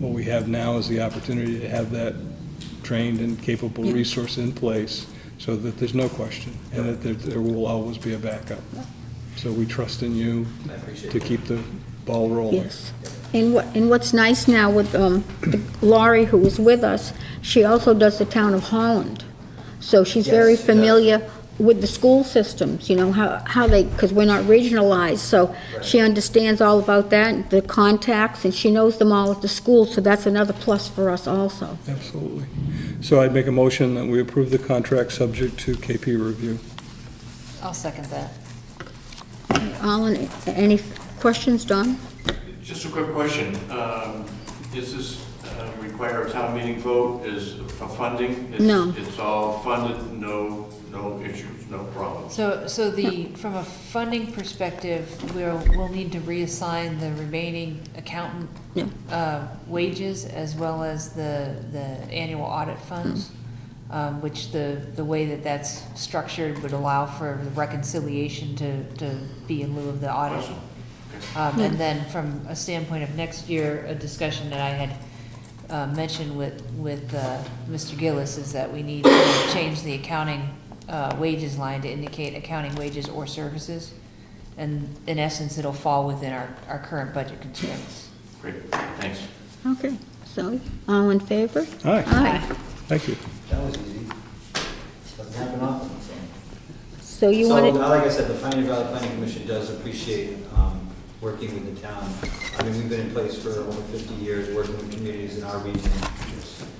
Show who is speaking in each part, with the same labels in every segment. Speaker 1: what we have now is the opportunity to have that trained and capable resource in place so that there's no question and that there, there will always be a backup. So we trust in you
Speaker 2: I appreciate
Speaker 1: to
Speaker 2: it.
Speaker 1: keep the ball rolling.
Speaker 3: Yes. And what, and what's nice now with um, Laurie, who was with us, she also does the town of Holland. So she's very
Speaker 2: Yes, she does.
Speaker 3: familiar with the school systems, you know, how, how they, because we're not regionalized, so she understands all about that, the contacts, and she knows them all at the school, so that's another plus for us also.
Speaker 1: Absolutely. So I'd make a motion that we approve the contract subject to KP review.
Speaker 4: I'll second that.
Speaker 3: Alan, any questions, Don?
Speaker 5: Just a quick question. Um, Does this uh, require a town meeting vote is for funding? It's-
Speaker 3: No.
Speaker 5: It's all funded, no, no issues, no problems.
Speaker 4: So, so the, from a funding perspective, we'll, we'll need to reassign the remaining accountant
Speaker 3: Yeah.
Speaker 4: uh, wages as well as the, the annual audit funds, um, which the, the way that that's structured would allow for the reconciliation to, to be in lieu of the audit.
Speaker 5: Awesome.
Speaker 4: Um, and then from a standpoint of next year, a discussion that I had, uh, mentioned with, with, uh, Mr. Gillis is that we need to change the accounting, uh, wages line to indicate accounting wages or services. And in essence, it'll fall within our, our current budget constraints.
Speaker 5: Great, thanks.
Speaker 3: Okay, so, all in favor?
Speaker 1: Aye,
Speaker 3: Aye.
Speaker 1: thank you.
Speaker 2: That was easy. Doesn't happen often, so.
Speaker 3: So you wanted,
Speaker 2: So, uh, like I said, the Pioneer Valley Planning Commission does appreciate um, working with the town. I mean, we've been in place for over 50 years, working with communities in our region.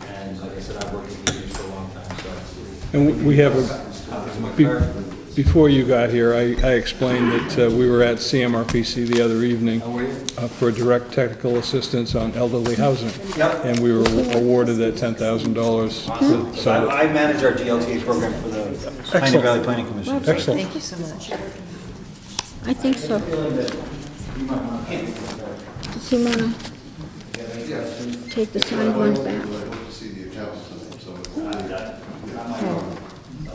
Speaker 2: And like I said, I've worked with communities for a long time, so.
Speaker 1: And we- we have a,
Speaker 2: uh, it's my
Speaker 1: Be-
Speaker 2: clarif-
Speaker 1: Before you got here, I, I explained that uh, we were at CMRPC the other evening
Speaker 2: How are you?
Speaker 1: uh, for direct technical assistance on elderly housing,
Speaker 2: Yep.
Speaker 1: and we were awarded that ten thousand dollars.
Speaker 2: Awesome. So
Speaker 1: So,
Speaker 2: I I manage our GLTA program for the Pioneer
Speaker 1: Excellent.
Speaker 2: Valley Planning Commission. so-
Speaker 1: excellent.
Speaker 4: Thank you so much.
Speaker 3: I think so. Does he wanna take the signed one back?
Speaker 6: I hope to see the accounts tonight, so.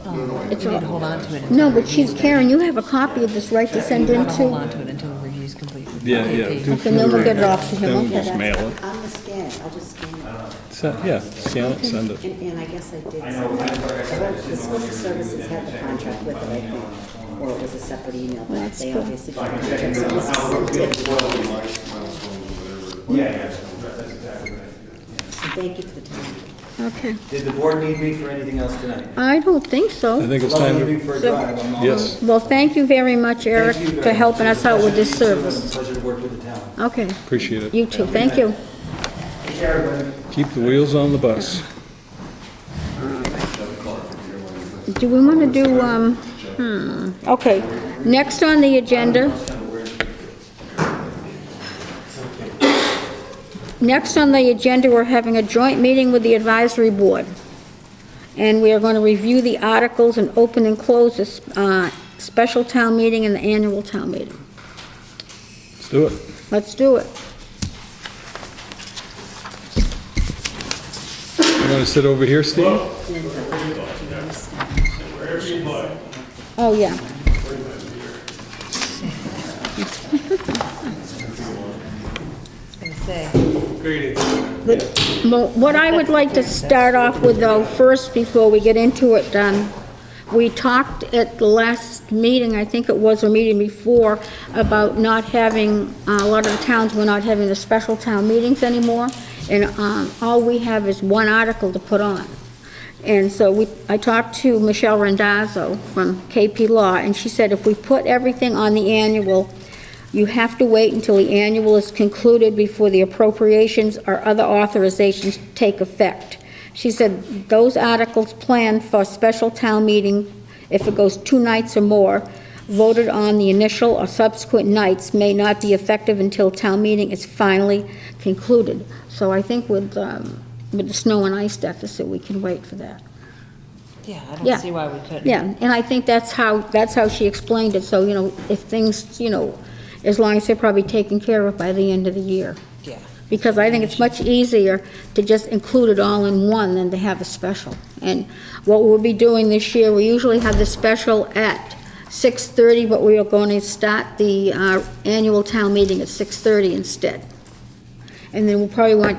Speaker 6: No, no, I
Speaker 3: It's
Speaker 4: You can
Speaker 3: all,
Speaker 4: hold on to it. until-
Speaker 3: no, but she's, Karen, you have a copy of this, right, to
Speaker 4: You
Speaker 3: send in
Speaker 4: want to hold on
Speaker 3: to?
Speaker 4: to it until the review's complete.
Speaker 1: Yeah, yeah. do-
Speaker 3: Okay, then we'll get it off to him.
Speaker 1: Then we'll
Speaker 3: Okay,
Speaker 1: just
Speaker 3: that's-
Speaker 1: mail it.
Speaker 7: I'm the scan, I'll just scan it.
Speaker 1: Se- Yeah, scan it, send it.
Speaker 7: And, and I guess Uh-huh. I did. send it. The school services had the contract with it, I think, or it was a separate email, but
Speaker 3: That's
Speaker 7: they
Speaker 3: cool.
Speaker 7: obviously. got the contract, so it was sent in.
Speaker 6: Well, my milestones, whatever. Yeah,
Speaker 7: So Thank you for the time.
Speaker 3: Okay,
Speaker 2: Did the board need me for anything else tonight?
Speaker 3: I don't think
Speaker 1: I
Speaker 3: so.
Speaker 1: think it's time
Speaker 2: Love
Speaker 1: to,
Speaker 2: leaving for a drive. I'm all-
Speaker 1: yes,
Speaker 3: Well, thank you very much, Eric,
Speaker 2: Thank you very
Speaker 3: for
Speaker 2: much.
Speaker 3: helping us out with this
Speaker 2: Pleasure to meet you,
Speaker 3: service.
Speaker 2: and Pleasure to work with the town.
Speaker 3: Okay,
Speaker 1: appreciate it.
Speaker 3: you too, thank you.
Speaker 2: Take care, everybody.
Speaker 1: Keep the wheels on the bus.
Speaker 3: Do we want to do, um, hmm, okay, next on the agenda. Next on the agenda, we're having a joint meeting with the advisory board. And we are going to review the articles and open and close this, uh, special town meeting and the annual town meeting.
Speaker 1: Let's do it.
Speaker 3: Let's do it.
Speaker 1: You want to sit over here, Steve?
Speaker 3: Oh, yeah.
Speaker 4: I was gonna say.
Speaker 3: But mo- what I would like to start off with though, first, before we get into it, um, we talked at the last meeting, I think it was, or meeting before, about not having, uh, a lot of the towns were not having the special town meetings anymore, and, um, all we have is one article to put on. And so we, I talked to Michelle Rendazzo from KP Law, and she said if we put everything on the annual, you have to wait until the annual is concluded before the appropriations or other authorizations take effect. She said those articles planned for special town meeting, if it goes two nights or more, voted on the initial or subsequent nights may not be effective until town meeting is finally concluded. So I think with, um, with the snow and ice deficit, we can wait for that.
Speaker 4: Yeah, I
Speaker 3: Yeah.
Speaker 4: don't see why we couldn't.
Speaker 3: Yeah, and I think that's how, that's how she explained it, so, you know, if things, you know, as long as they're probably taken care of by the end of the year.
Speaker 4: Yeah.
Speaker 3: Because I think it's much easier to just include it all in one than to have a special. And what we'll be doing this year, we usually have the special at 6:30, but we are going to start the uh, annual town meeting at 6:30 instead. And then we'll probably want